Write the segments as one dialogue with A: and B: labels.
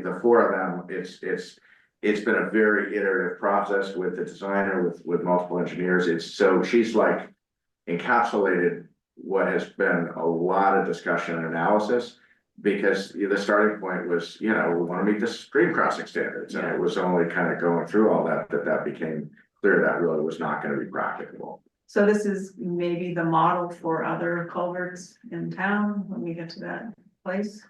A: the four of them, it's, it's, it's been a very iterative process with the designer, with, with multiple engineers. It's, so she's like encapsulated what has been a lot of discussion and analysis. Because you know, the starting point was, you know, we wanna meet the stream crossing standards, and it was only kind of going through all that, that that became clear that really was not gonna be practicable.
B: So this is maybe the model for other culverts in town when we get to that place.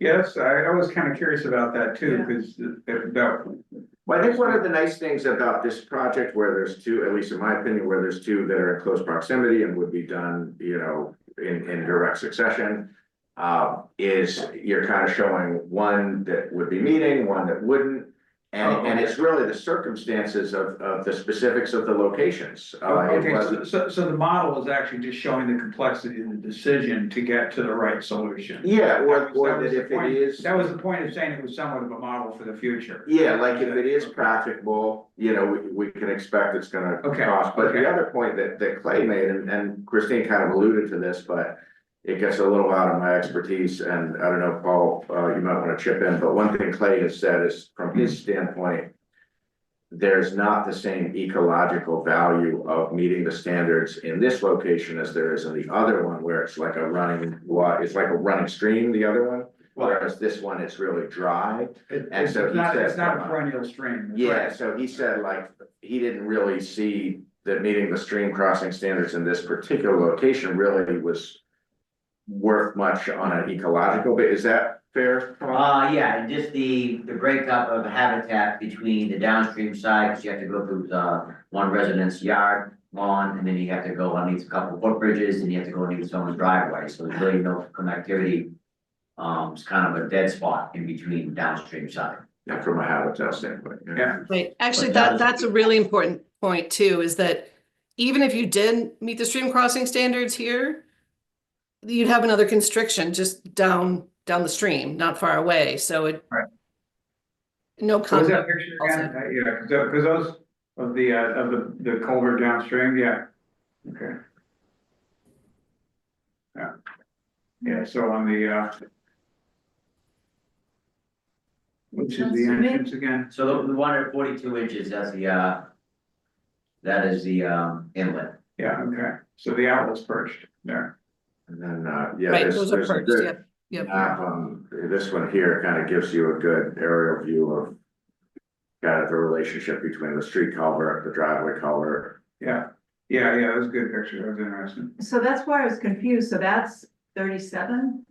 C: Yes, I, I was kind of curious about that too,
B: Yeah.
C: because about,
A: Well, I think one of the nice things about this project where there's two, at least in my opinion, where there's two that are in close proximity and would be done, you know, in, in direct succession. Uh, is you're kind of showing one that would be meeting, one that wouldn't. And,
C: Oh,
A: and it's really the circumstances of, of the specifics of the locations. Uh, it
C: Oh, okay,
A: wasn't-
C: so- so, so the model is actually just showing the complexity of the decision to get to the right solution.
A: Yeah, or,
C: That was- that
A: or
C: was
A: that
C: the
A: if it
C: point.
A: is.
C: That was the point of saying it was somewhat of a model for the future.
A: Yeah, like if it is practicable, you know, we, we can expect it's gonna
C: Okay,
A: cost, but
C: okay.
A: the other point that, that Clay made, and, and Christine kind of alluded to this, but. It gets a little out of my expertise, and I don't know, Paul, uh, you might wanna chip in, but one thing Clay has said is, from his
C: Mm-hmm.
A: standpoint. There's not the same ecological value of meeting the standards in this location as there is in the other one, where it's like a running, wa- it's like a running stream, the other one.
C: Well,
A: Whereas this one, it's really dry,
C: it-
A: and
C: it's
A: so he
C: not,
A: said
C: it's not a
A: from a-
C: perennial stream. that's
A: yeah,
C: right.
A: so he said like, he didn't really see that meeting the stream crossing standards in this particular location really was. Worth much on an ecological, but is that fair? Paul?
D: Uh, yeah, and just the, the breakup of habitat between the downstream side, because you have to go through, uh, one resident's yard, lawn, and then you have to go underneath a couple footbridges, and you have to go underneath someone's driveway, so there's really no connectivity. Um, it's kind of a dead spot in between downstream side.
A: Yeah, from a habitat standpoint.
C: Yeah.
E: Right, actually,
D: But
E: that,
D: that-
E: that's a really important point too, is that even if you did meet the stream crossing standards here, you'd have another constriction just down, down the stream, not far away, so it
C: Right.
E: no
C: What Was that
E: comment,
C: picture again? Uh, Yeah, because, those of the, uh, of the, the culvert downstream, yeah. Okay. Yeah. Yeah, so on the, uh. Which is the
B: Sounds to me-
C: entrance again?
D: So the, the one at forty-two inches, that's the, uh, that is the, um, inlet.
C: Yeah, okay, so the outlet's perched there.
A: And then, uh, yeah,
E: right,
A: there's,
E: those are
A: there's a
E: perks,
A: good
E: yep, yep.
A: map on, this one here kind of gives you a good aerial view of. Kind of the relationship between the street culvert, the driveway culvert.
C: Yeah, yeah, yeah, that was a good picture, that was interesting.
B: So that's why I was confused. So that's thirty-seven?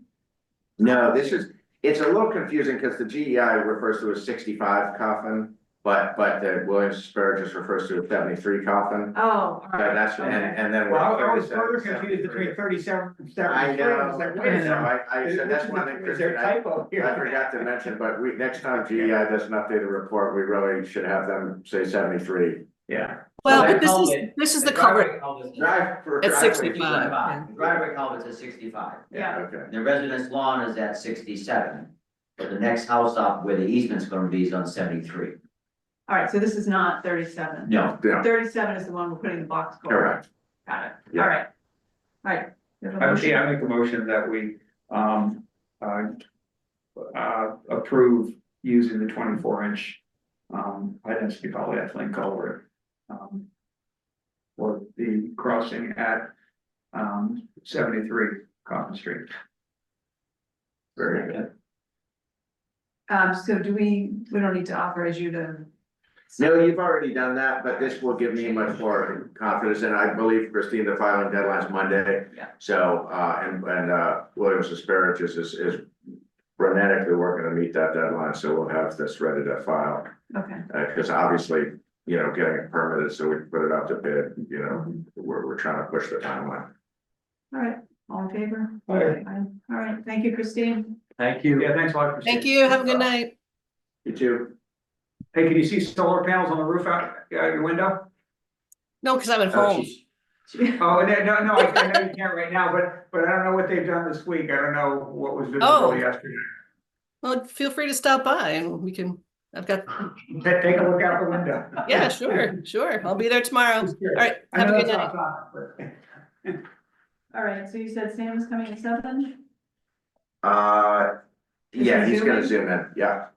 A: No, this is, it's a little confusing because the GEI refers to a sixty-five coffin, but, but the Williams Asparagus refers to a seventy-three coffin.
B: Oh, all
A: So
B: right.
A: that's, and,
B: okay.
A: and then. we're
C: Well, I was
A: 37,
C: further confused
A: 73.
C: between thirty-seven and
A: I
C: seventy-three, I
A: know,
C: was
A: I
C: like, wait a
A: know,
C: second.
A: I, I said, that's one thing,
C: Is there
A: Christian,
C: a
A: I,
C: typo here?
A: I forgot to mention, but we, next time GEI doesn't update the report, we really should have them say seventy-three.
C: Yeah.
E: Well,
D: So
E: but
D: that
E: this is,
D: culvert-
E: this is the
D: driveway
E: cover,
D: culvert's
A: Drive for.
E: It's
A: driveway,
E: 65.
D: Sixty-five, The driveway culvert's at sixty-five.
A: Yeah, okay,
D: The residence lawn is at sixty-seven, but the next house up where the easement's gonna be is on seventy-three.
B: All right, so this is not thirty-seven.
D: No,
A: yeah,
B: Thirty-seven is the one we're putting the box culvert.
A: correct,
B: Got it.
A: Yeah.
B: All right. All right. You have a
C: I,
B: motion?
C: yeah, I make a motion that we, um, uh, uh, approve using the twenty-four inch, um, high density polyethylene culvert. um, For the crossing at, um, seventy-three Coffin Street.
A: very good.
B: Um, so do we, we don't need to authorize you to.
A: No, you've already done that, but this will give me much more confidence, and I believe Christine, the filing deadline's Monday.
B: Yeah.
A: So, uh, and, and, uh, Williams Asparagus is, is frenetically working to meet that deadline, so we'll have this ready to file.
B: Okay.
A: Uh, cause obviously, you know, getting it permitted, so we can put it out to bid, you know, we're, we're trying to push the timeline.
B: All right, all in favor?
C: Aye.
B: All right, thank you, Christine.
C: Thank you. Yeah, thanks a lot, Christine.
E: thank you, have a good night.
A: You too?
C: Hey, can you see solar panels on the roof out, out your window?
E: No, because I'm at
A: Uh,
E: home,
A: she's-
C: Oh, and then- no, no, I I know you can't right now, but, but I don't know what they've done this week, I don't know what was
E: Oh.
C: visible yesterday.
E: well, feel free to stop by and we can, I've got,
C: Ta- Take a look out the window.
E: yeah, sure, sure, I'll be there tomorrow.
C: Just curious.
E: All right,
C: I
E: have a
C: know
E: good
C: that's
E: night.
C: off topic, but-
B: All right, so you said Sam was coming at seven?
A: Uh, yeah, he's gonna
B: Is he
A: zoom in, yeah,